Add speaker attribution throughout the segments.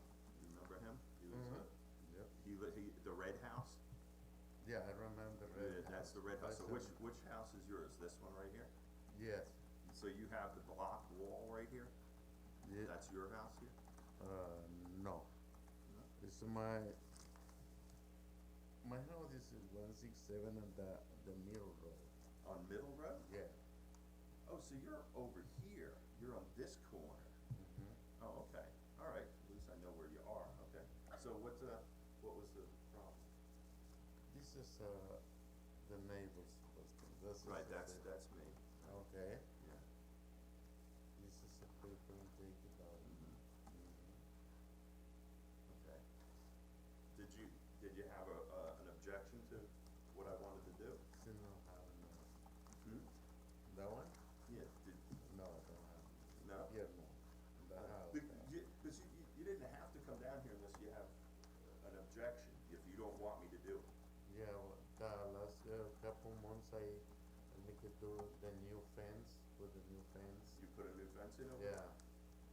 Speaker 1: Mm-hmm. uh,
Speaker 2: Yeah, I remember
Speaker 1: Yeah,
Speaker 2: red house.
Speaker 1: that's the red house, so
Speaker 2: I
Speaker 1: which,
Speaker 2: don't-
Speaker 1: which house is yours, this one right here?
Speaker 2: Yes,
Speaker 1: So you have the block wall right here,
Speaker 2: ye-
Speaker 1: that's your house here?
Speaker 2: uh, no. It's my, my house is one six seven on the, the middle road,
Speaker 1: On Middle Road?
Speaker 2: yeah.
Speaker 1: Oh, so you're over here, you're on this corner? Oh, okay, all right, at least I know where you are, okay. So what, uh, what was the problem?
Speaker 2: This is, uh, the neighbor's question, this is.
Speaker 1: Right,
Speaker 2: the
Speaker 1: that's,
Speaker 2: thing.
Speaker 1: that's me,
Speaker 2: Okay,
Speaker 1: Oh, yeah.
Speaker 2: this is a paper and take it out.
Speaker 1: Mm-hmm. Okay. Did you, did you have a, uh, an objection to what I wanted to do?
Speaker 2: Still don't have enough.
Speaker 1: Hmm?
Speaker 2: That one?
Speaker 1: Yeah, did,
Speaker 2: No, I don't have,
Speaker 1: no?
Speaker 2: here, no, the
Speaker 1: Uh,
Speaker 2: house.
Speaker 1: Be- you- Cause you, you, you didn't have to come down here unless you have an objection, if you don't want me to do it.
Speaker 2: Yeah, well, the last uh, couple months I make it do the new fence, with the new fence.
Speaker 1: You put a new fence in over?
Speaker 2: Yeah,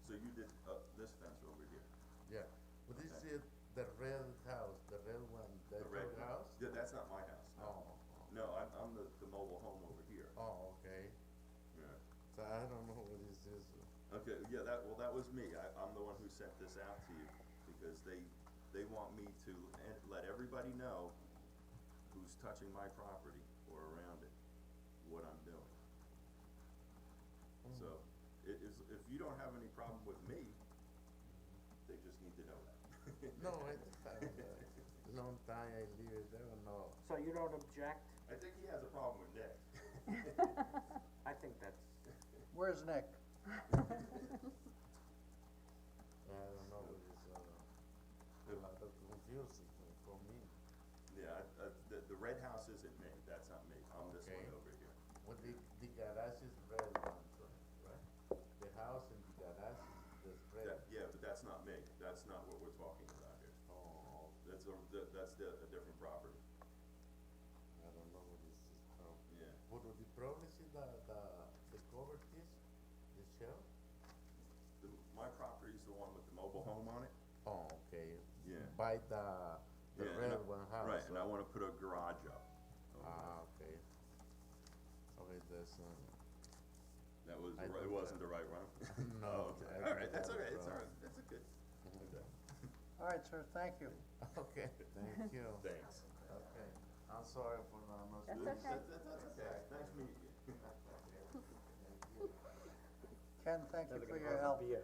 Speaker 1: So you did, uh, this fence over here,
Speaker 2: yeah, but this
Speaker 1: Okay.
Speaker 2: is the red house, the red one,
Speaker 1: the
Speaker 2: that's
Speaker 1: red
Speaker 2: your
Speaker 1: one.
Speaker 2: house?
Speaker 1: Yeah, that's not my house, no.
Speaker 2: Oh,
Speaker 1: No, I'm, I'm the, the mobile home over here,
Speaker 2: oh, oh, okay,
Speaker 1: yeah.
Speaker 2: so I don't know what is this,
Speaker 1: Okay, yeah, that, well, that was me, I, I'm the one who sent this out to you, because they, they want me to en- let everybody know who's touching my property or around it, what I'm doing.
Speaker 2: Mm.
Speaker 1: So, it is, if you don't have any problem with me, they just need to know that.
Speaker 2: no, I, I, long time I live, I don't know.
Speaker 3: So you don't object?
Speaker 1: I think he has a problem with Nick.
Speaker 3: I think that's,
Speaker 4: Where's Nick?
Speaker 2: I don't know what is, uh, a lot of confusing for me,
Speaker 1: Yeah, I, I, the, the red house isn't me, that's not me, I'm this one
Speaker 2: Okay.
Speaker 1: over here.
Speaker 2: but the, the garage is red one, right? The house and the garage is this red.
Speaker 1: That, yeah, but that's not me, that's not what we're talking about here.
Speaker 2: Oh,
Speaker 1: That's a, that, that's the, a different property,
Speaker 2: I don't know what this is from.
Speaker 1: yeah.
Speaker 2: But the problem is the, the, the cover is, the shell?
Speaker 1: The, my property's the one with the mobile home on it?
Speaker 2: Oh, okay.
Speaker 1: Yeah.
Speaker 2: By the,
Speaker 1: Yeah,
Speaker 2: the
Speaker 1: and I-
Speaker 2: red one house.
Speaker 1: Right, and I wanna put a garage up. Um,
Speaker 2: Ah, okay. Okay, that's, uh,
Speaker 1: That was, the ri-
Speaker 2: I
Speaker 1: it
Speaker 2: think
Speaker 1: wasn't the right one? Oh,
Speaker 2: no. I
Speaker 1: okay,
Speaker 2: think
Speaker 1: alright, that's
Speaker 2: that
Speaker 1: alright,
Speaker 2: was
Speaker 1: it's
Speaker 2: wrong.
Speaker 1: alright, that's a good, okay,
Speaker 4: All right, sir, thank you.
Speaker 2: Okay, thank you.
Speaker 1: thanks.
Speaker 2: Okay, I'm sorry for not, not.
Speaker 5: That's
Speaker 1: That-
Speaker 5: okay.
Speaker 1: that- that's okay, nice meeting you.
Speaker 4: Ken, thank you
Speaker 3: never gonna
Speaker 4: for your
Speaker 3: have
Speaker 4: help.
Speaker 3: a beer.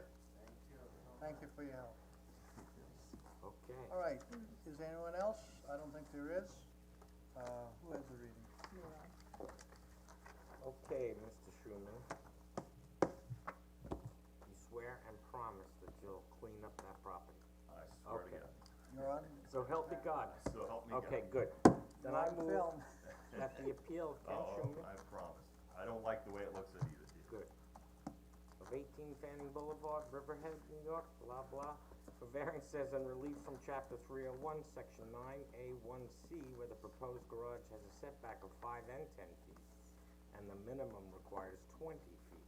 Speaker 4: Thank you for your help.
Speaker 3: Okay.
Speaker 4: All right, is there anyone else? I don't think there is. Uh, who has the reading?
Speaker 3: Okay, Mr. Schuman. You swear and promise that you'll clean up that property.
Speaker 1: I swear to
Speaker 3: Okay.
Speaker 1: God,
Speaker 4: You're on,
Speaker 3: So help me God.
Speaker 1: so help me God.
Speaker 3: Okay, good. Then
Speaker 4: you're
Speaker 3: I
Speaker 4: on
Speaker 3: move
Speaker 4: film.
Speaker 3: that the appeal of Ken
Speaker 1: Oh,
Speaker 3: Schuman
Speaker 1: I promise, I don't like the way it looks at either, dude.
Speaker 3: Good. Of eighteen Fanning Boulevard, Riverhead, New York, blah, blah, for variance says and relief from chapter three oh one, section nine A one C, where the proposed garage has a setback of five and ten feet, and the minimum required is twenty feet.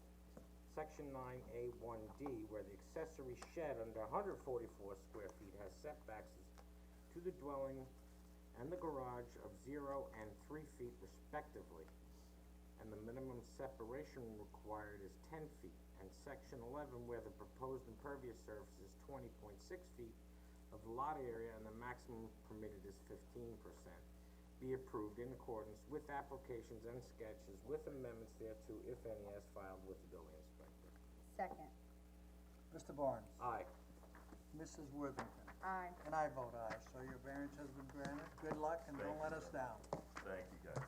Speaker 3: Section nine A one D, where the accessory shed under hundred forty-four square feet has setbacks to the dwelling and the garage of zero and three feet respectively and the minimum separation required is ten feet. And section eleven, where the proposed impervious surface is twenty point six feet of the lot area and the maximum permitted is fifteen percent. Be approved in accordance with applications and sketches with amendments thereto, if any, as filed with the building inspector.
Speaker 5: Second,
Speaker 4: Mr. Barnes,
Speaker 3: Aye.
Speaker 4: Mrs. Worthington,
Speaker 5: aye.
Speaker 4: and I vote aye, so your variance has been granted. Good luck and
Speaker 1: Thank
Speaker 4: don't
Speaker 1: you,
Speaker 4: let us
Speaker 1: sir.
Speaker 4: down.
Speaker 1: Thank you, guys.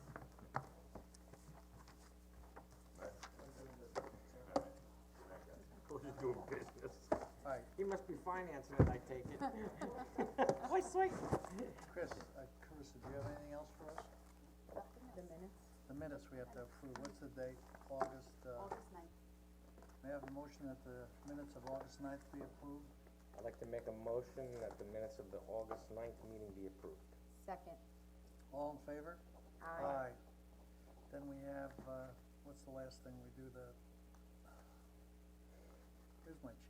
Speaker 1: Right. All right. Good night, guys.
Speaker 3: What are you doing business?
Speaker 4: All right,
Speaker 3: He must be financing it, I take it. Why, sweet?
Speaker 4: Chris, uh, Carissa, do you have anything else for us?
Speaker 5: The minutes?
Speaker 4: The minutes we have to approve, what's the date? August, uh,
Speaker 5: August ninth.
Speaker 4: may I have a motion that the minutes of August ninth be approved?
Speaker 3: I'd like to make a motion that the minutes of the August ninth meeting be approved.
Speaker 5: Second,
Speaker 4: All in favor?
Speaker 5: aye.
Speaker 4: Then we have, uh, what's the last thing we do, the, here's my